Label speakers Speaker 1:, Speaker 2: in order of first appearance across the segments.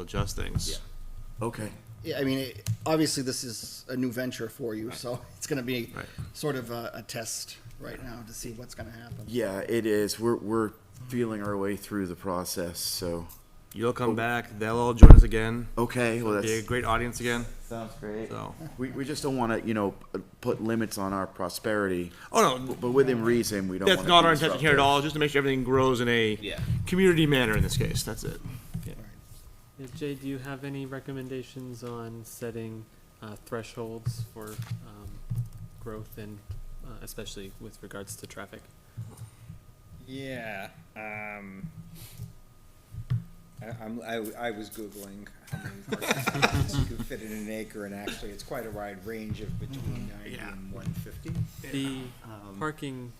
Speaker 1: adjust things.
Speaker 2: Yeah.
Speaker 3: Okay.
Speaker 4: Yeah, I mean, it- obviously, this is a new venture for you, so it's gonna be
Speaker 1: Right.
Speaker 4: sort of a, a test right now to see what's gonna happen.
Speaker 3: Yeah, it is. We're we're feeling our way through the process. So
Speaker 1: You'll come back. They'll all join us again.
Speaker 3: okay, well
Speaker 1: Be a
Speaker 3: that's
Speaker 1: great audience again.
Speaker 3: sounds great.
Speaker 1: So,
Speaker 3: We we just don't want to you know p- put limits on our prosperity,
Speaker 1: oh no,
Speaker 3: but within reason we don't.
Speaker 1: that's
Speaker 3: wanna
Speaker 1: not
Speaker 3: be
Speaker 1: our intention here at
Speaker 3: disruptive.
Speaker 1: all. Just to make sure everything grows in a
Speaker 2: Yeah.
Speaker 1: community manner. In this case, that's it.
Speaker 5: Yeah, Jay, do you have any recommendations on setting uh, thresholds for um, growth and uh, especially with regards to traffic?
Speaker 6: Yeah. Um, I, I'm, I, I was Googling how many parking lots you could fit in an acre, and actually, it's quite a wide range of between 90
Speaker 1: Yeah.
Speaker 6: and 150.
Speaker 5: The
Speaker 6: Um,
Speaker 5: parking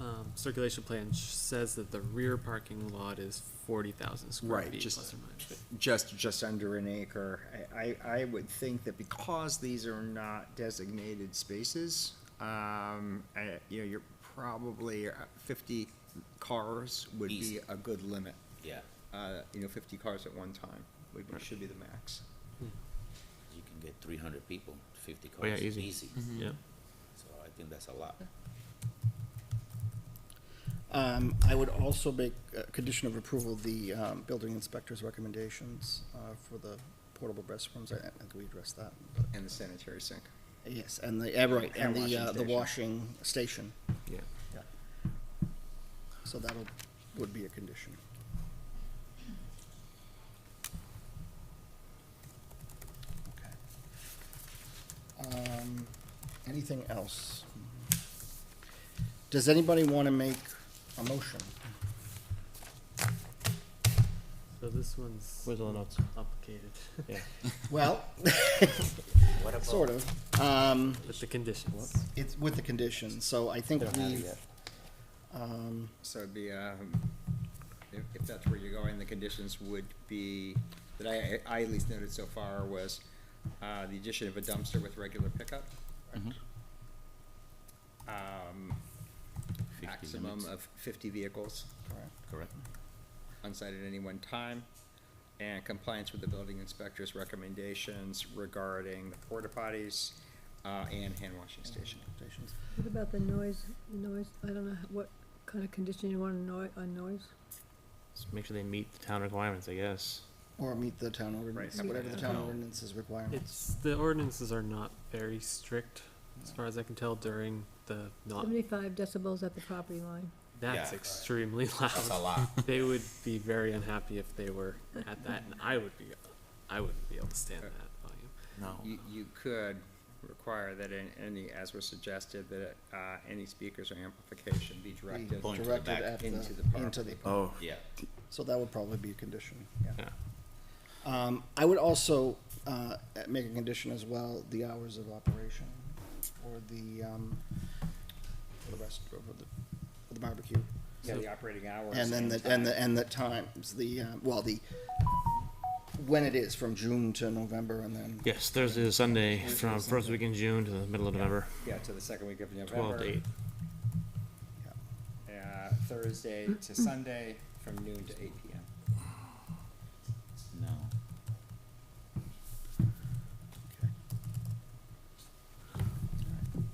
Speaker 5: um, circulation plan sh- says that the rear parking lot is forty thousand square
Speaker 6: Right,
Speaker 5: feet
Speaker 6: just-
Speaker 5: plus or minus.
Speaker 6: just just under an acre. I, I, I would think that because these are not designated spaces, um, I, you know, you're probably uh, 50 cars would
Speaker 2: Easy.
Speaker 6: be a good limit.
Speaker 2: Yeah.
Speaker 6: Uh, you know, 50 cars at one time would be, should be the max.
Speaker 2: You can get three hundred people, fifty
Speaker 1: Oh, yeah,
Speaker 2: cars,
Speaker 1: easy.
Speaker 2: easy.
Speaker 4: Mm-hmm.
Speaker 5: Yeah,
Speaker 2: So I think that's a lot.
Speaker 4: Um, I would also make a condition of approval, the, um, building inspector's recommendations, uh, for the portable restrooms, I, I think we addressed that. but-
Speaker 6: And the sanitary sink.
Speaker 4: Yes, and the, yeah, right, and
Speaker 6: Hand
Speaker 4: the,
Speaker 6: washing
Speaker 4: uh, the
Speaker 6: station.
Speaker 4: washing station,
Speaker 1: Yeah.
Speaker 4: so that'll, would be a condition. Okay. Um, Anything else? Does anybody want to make a motion?
Speaker 5: so this one's
Speaker 1: Where's all the notes?
Speaker 5: complicated
Speaker 4: Well,
Speaker 2: What about?
Speaker 4: sort of. Um,
Speaker 5: with the conditions.
Speaker 4: It's with the condition, so I think we've, um,
Speaker 6: So it'd be, um, if, if that's where you're going, the conditions would be, that I, I at least noted so far was, uh, the addition of a dumpster with regular pickup. Um,
Speaker 2: 50
Speaker 6: maximum
Speaker 2: limits.
Speaker 6: of fifty vehicles
Speaker 2: Correct.
Speaker 6: on site at any one time. And compliance with the building inspector's recommendations regarding the porta potties, uh, and hand washing station.
Speaker 4: recommendations.
Speaker 7: What about the noise, the noise, I don't know what kind of condition you want on noi- on noise?
Speaker 1: Just make sure they meet the town requirements. I guess.
Speaker 4: or meet the town ordinance,
Speaker 6: Right.
Speaker 4: whatever the town
Speaker 1: Yeah.
Speaker 4: ordinance's requirements.
Speaker 5: It's, the ordinances are not very strict, as far as I can tell during the not,
Speaker 7: Seventy-five decibels at the property line.
Speaker 5: that's
Speaker 2: Yeah.
Speaker 5: extremely loud.
Speaker 2: That's a lot.
Speaker 5: They would be very unhappy if they were at that, and I would be, I wouldn't be able to stand that volume.
Speaker 1: No.
Speaker 6: You, you could require that in any, as was suggested, that, uh, any speakers or amplification be
Speaker 4: Be
Speaker 6: directed.
Speaker 2: Point to the back,
Speaker 4: Directed at the,
Speaker 6: into the
Speaker 4: into
Speaker 6: property.
Speaker 4: the
Speaker 3: Oh,
Speaker 2: Yeah.
Speaker 4: So that would probably be a condition, yeah.
Speaker 1: Yeah.
Speaker 4: Um, I would also, uh, make a condition as well, the hours of operation, or the, um, for the rest, or the, for the barbecue.
Speaker 6: Yeah, the operating hours.
Speaker 4: And then the, and the, and the times, the, uh, well, the, when it is, from June to November, and then
Speaker 1: Yes, Thursday to Sunday,
Speaker 6: Thursday to
Speaker 1: from first
Speaker 6: Sunday.
Speaker 1: week in June to the middle of November,
Speaker 6: Yeah, to the second week of November.
Speaker 1: twelve to eight.
Speaker 6: Uh, Thursday to Sunday from noon to eight PM.
Speaker 2: No.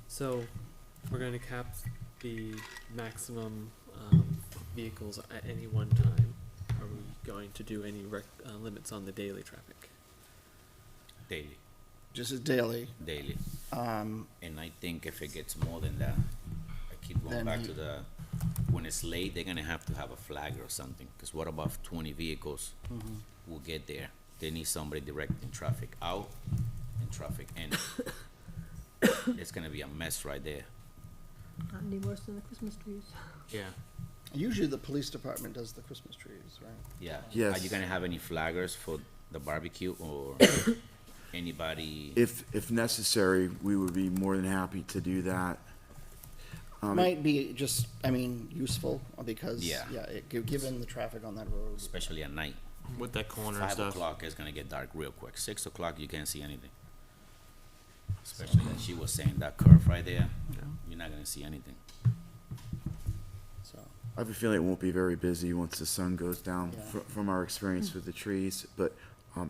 Speaker 5: So, we're gonna cap the maximum, um, vehicles at any one time. Are we going to do any rec, uh, limits on the daily traffic?
Speaker 2: Daily,
Speaker 4: just as daily,
Speaker 2: daily.
Speaker 4: um,
Speaker 2: And I think if it gets more than that, I keep
Speaker 4: Then
Speaker 2: going back
Speaker 4: you-
Speaker 2: to the, when it's late, they're gonna have to have a flag or something, because what about if twenty vehicles
Speaker 4: Mm-hmm.
Speaker 2: will get there? They need somebody directing traffic out and traffic in. It's gonna be a mess right there.
Speaker 7: Not any worse than the Christmas trees.
Speaker 1: Yeah.
Speaker 4: usually the police department does the Christmas trees, right?
Speaker 2: Yeah. Are you
Speaker 3: Yes.
Speaker 2: gonna have any flaggers for the barbecue or anybody?
Speaker 3: if if necessary, we would be more than happy to do that. Um,
Speaker 4: Might be just, I mean, useful, because, yeah,
Speaker 2: Yeah.
Speaker 4: it, gi- given the traffic on that road.
Speaker 2: especially at night.
Speaker 1: With that corner and
Speaker 2: Five
Speaker 1: stuff.
Speaker 2: o'clock is gonna get dark real quick. Six o'clock, you can't see anything. Especially that she was saying that curve right there, you're not gonna see anything.
Speaker 4: So,
Speaker 3: I have a feeling it won't be very busy once the sun goes down
Speaker 4: Yeah.
Speaker 3: fr- from our experience with the trees, but